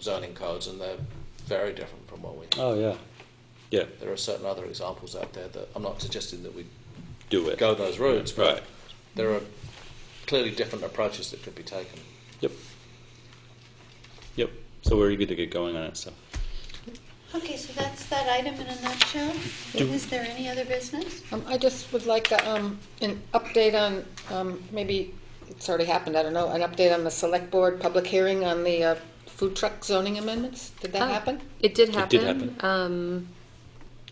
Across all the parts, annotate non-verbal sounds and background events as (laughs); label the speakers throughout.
Speaker 1: zoning codes, and they're very different from what we have.
Speaker 2: Oh, yeah. Yeah,
Speaker 1: There are certain other examples out there that I'm not suggesting that we
Speaker 2: do it.
Speaker 1: go those routes, but
Speaker 2: Right.
Speaker 1: there are clearly different approaches that could be taken.
Speaker 2: Yep. Yep. So we're eager to get going on it, so.
Speaker 3: Okay, so that's that item in a nutshell.
Speaker 2: Do-
Speaker 3: Is there any other business?
Speaker 4: Um, I just would like a, um, an update on, um, maybe it's already happened, I don't know, an update on the select board public hearing on the uh, food truck zoning amendments. Did that
Speaker 5: Oh,
Speaker 4: happen?
Speaker 5: It did happen.
Speaker 2: It did
Speaker 5: Um,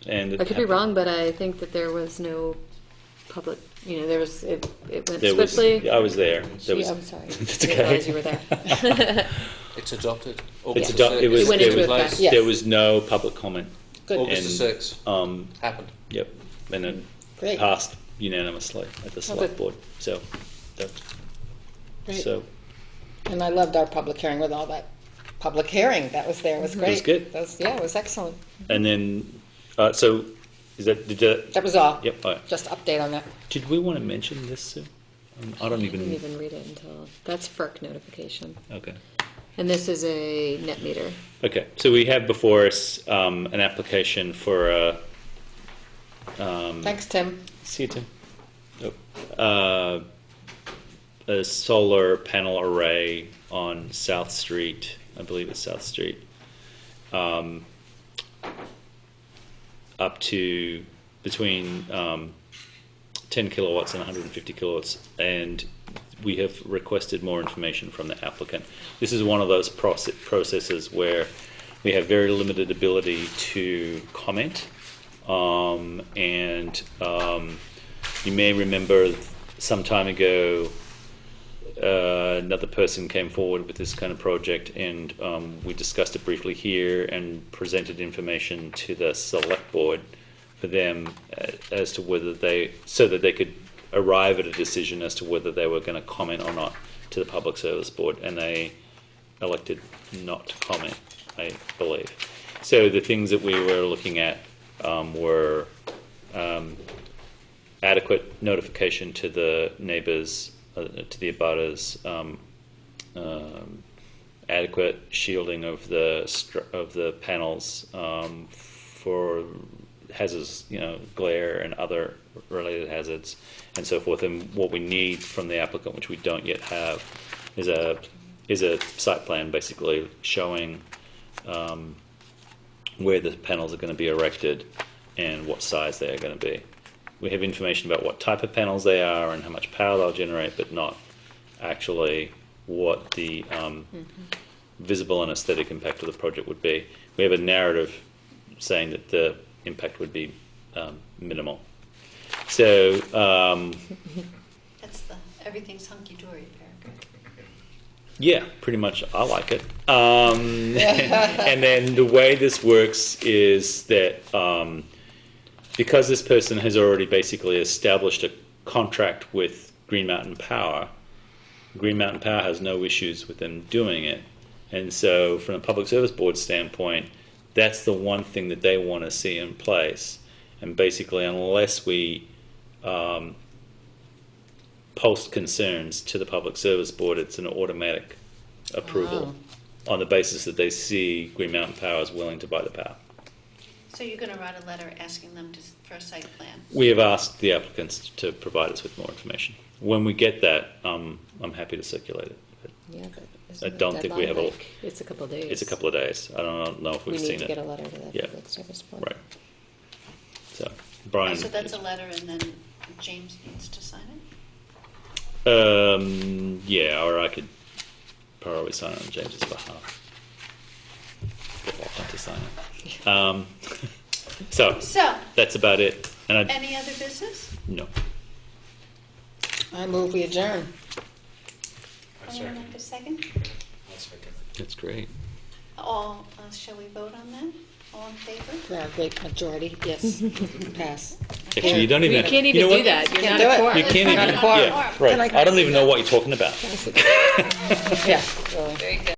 Speaker 2: And it
Speaker 5: I could be
Speaker 2: happened.
Speaker 5: wrong, but I think that there was no public, you know, there was, it, it went
Speaker 2: There was-
Speaker 5: swiftly.
Speaker 2: I was there. There was.
Speaker 4: Yeah,
Speaker 2: (laughs)
Speaker 4: I'm sorry.
Speaker 2: It's
Speaker 5: Didn't realize you were
Speaker 2: okay. (laughs)
Speaker 5: there.
Speaker 1: It's adopted.
Speaker 2: It's
Speaker 1: August the
Speaker 2: ado- it
Speaker 1: 6th.
Speaker 2: was,
Speaker 4: It went
Speaker 2: there
Speaker 4: into
Speaker 2: was-
Speaker 4: effect, yes.
Speaker 2: There was no public comment.
Speaker 4: Good,
Speaker 1: August the
Speaker 2: and-
Speaker 1: 6th
Speaker 2: Um,
Speaker 1: happened.
Speaker 2: yep. And it
Speaker 4: Great.
Speaker 2: passed unanimously at the select
Speaker 4: good.
Speaker 2: board. So, that,
Speaker 4: Great.
Speaker 2: so
Speaker 4: And I loved our public hearing with all that public hearing that was there, It was
Speaker 2: It
Speaker 4: great.
Speaker 2: was good.
Speaker 4: That was- yeah, it was excellent.
Speaker 2: and then, uh, so is that, did that,
Speaker 4: That was all.
Speaker 2: yep. all right.
Speaker 4: Just update on that.
Speaker 2: Did we want to mention this, Sue? Um, I don't
Speaker 5: I didn't
Speaker 2: even,
Speaker 5: even read it until, that's FERC notification.
Speaker 2: okay.
Speaker 5: And this is a net meter.
Speaker 2: Okay, so we have before us um, an application for a. Um,
Speaker 4: Thanks, Tim.
Speaker 2: See you, Tim. Uh, a solar panel array on South Street, I believe it's South Street. Um, up to between um, 10 kilowatts and 150 kilowatts, and we have requested more information from the applicant. This is one of those proce- processes where we have very limited ability to comment, um, and um, you may remember some time ago uh, another person came forward with this kind of project, and um, we discussed it briefly here and presented information to the select board for them uh, as to whether they, so that they could arrive at a decision as to whether they were going to comment or not to the public service board, and they elected not to comment, I believe. So the things that we were looking at um, were adequate notification to the neighbors, uh, to the abutters, um, um, adequate shielding of the str- of the panels um, for hazards, you know, glare and other related hazards, and so forth. And what we need from the applicant, which we don't yet have, is a is a site plan basically showing um, where the panels are going to be erected and what size they are going to be. We have information about what type of panels they are and how much power they'll generate, but not actually what the um, visible and aesthetic impact of the project would be. We have a narrative saying that the impact would be um, minimal. So, um,
Speaker 3: That's the, everything's hunky-dory paragraph.
Speaker 2: Yeah, pretty much. I like it. Um, (laughs) and then the way this works is that um, because this person has already basically established a contract with Green Mountain Power, Green Mountain Power has no issues with them doing it. And so, from a public service board standpoint, that's the one thing that they want to see in place. And basically, unless we um, post concerns to the public service board, it's an automatic approval
Speaker 5: Oh.
Speaker 2: on the basis that they see Green Mountain Power is willing to buy the power.
Speaker 3: So you're going to write a letter asking them to, for a site plan?
Speaker 2: We have asked the applicants to provide us with more information. When we get that, um, I'm happy to circulate it.
Speaker 5: Yeah, but
Speaker 2: I
Speaker 5: isn't the
Speaker 2: don't think we
Speaker 5: deadline
Speaker 2: have a-
Speaker 5: like- It's a couple days.
Speaker 2: It's a couple of days. I don't know if
Speaker 5: We
Speaker 2: we've
Speaker 5: need
Speaker 2: seen
Speaker 5: to get a
Speaker 2: it.
Speaker 5: letter to the
Speaker 2: Yeah.
Speaker 5: public service board.
Speaker 2: Right. So, Brian.
Speaker 3: So that's a letter, and then James needs to sign it?
Speaker 2: Um, yeah, or I could probably sign it on James's
Speaker 5: (laughs)
Speaker 2: behalf. If I want to sign it. Um, (laughs) so,
Speaker 3: So,
Speaker 2: that's about it. And I,
Speaker 3: any other business?
Speaker 2: no.
Speaker 4: I move we adjourn.
Speaker 3: Anyone like a second?
Speaker 2: That's great.
Speaker 3: All, uh, shall we vote on that? All in favor?
Speaker 4: For our great majority, yes. Pass.
Speaker 2: Actually, you don't even.
Speaker 5: You
Speaker 2: have-
Speaker 5: can't
Speaker 2: you
Speaker 5: even
Speaker 2: know
Speaker 5: do
Speaker 2: what?
Speaker 5: that. You're
Speaker 4: Can't
Speaker 5: not
Speaker 4: do
Speaker 5: a
Speaker 4: it.
Speaker 5: quorum.
Speaker 2: You can't
Speaker 4: Not
Speaker 2: even.
Speaker 4: a quorum.
Speaker 2: Yeah, right. I don't even know what you're talking about.
Speaker 4: Yeah, really.
Speaker 3: Very good.